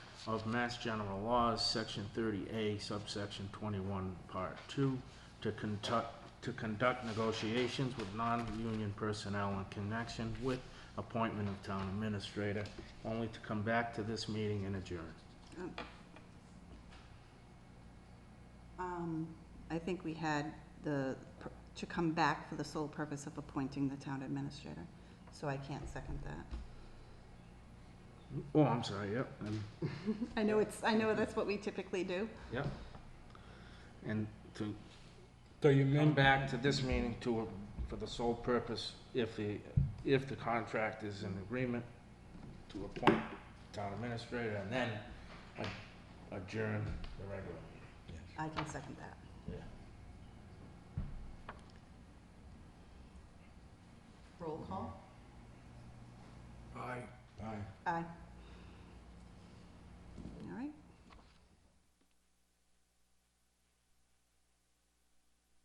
of Mass General Laws, Section 30A, subsection 21, Part 2, to conduct, to conduct negotiations with non-union personnel in connection with appointment of town administrator, only to come back to this meeting and adjourn. Um, I think we had the, pr- to come back for the sole purpose of appointing the town administrator, so I can't second that. Oh, I'm sorry, yep, and, I know it's, I know that's what we typically do. yep. And to So you come meant, back to this meeting to, for the sole purpose, if the, if the contract is in agreement, to appoint town administrator and then a- adjourn the regular I can second that. meeting. Roll call? aye, aye. Aye.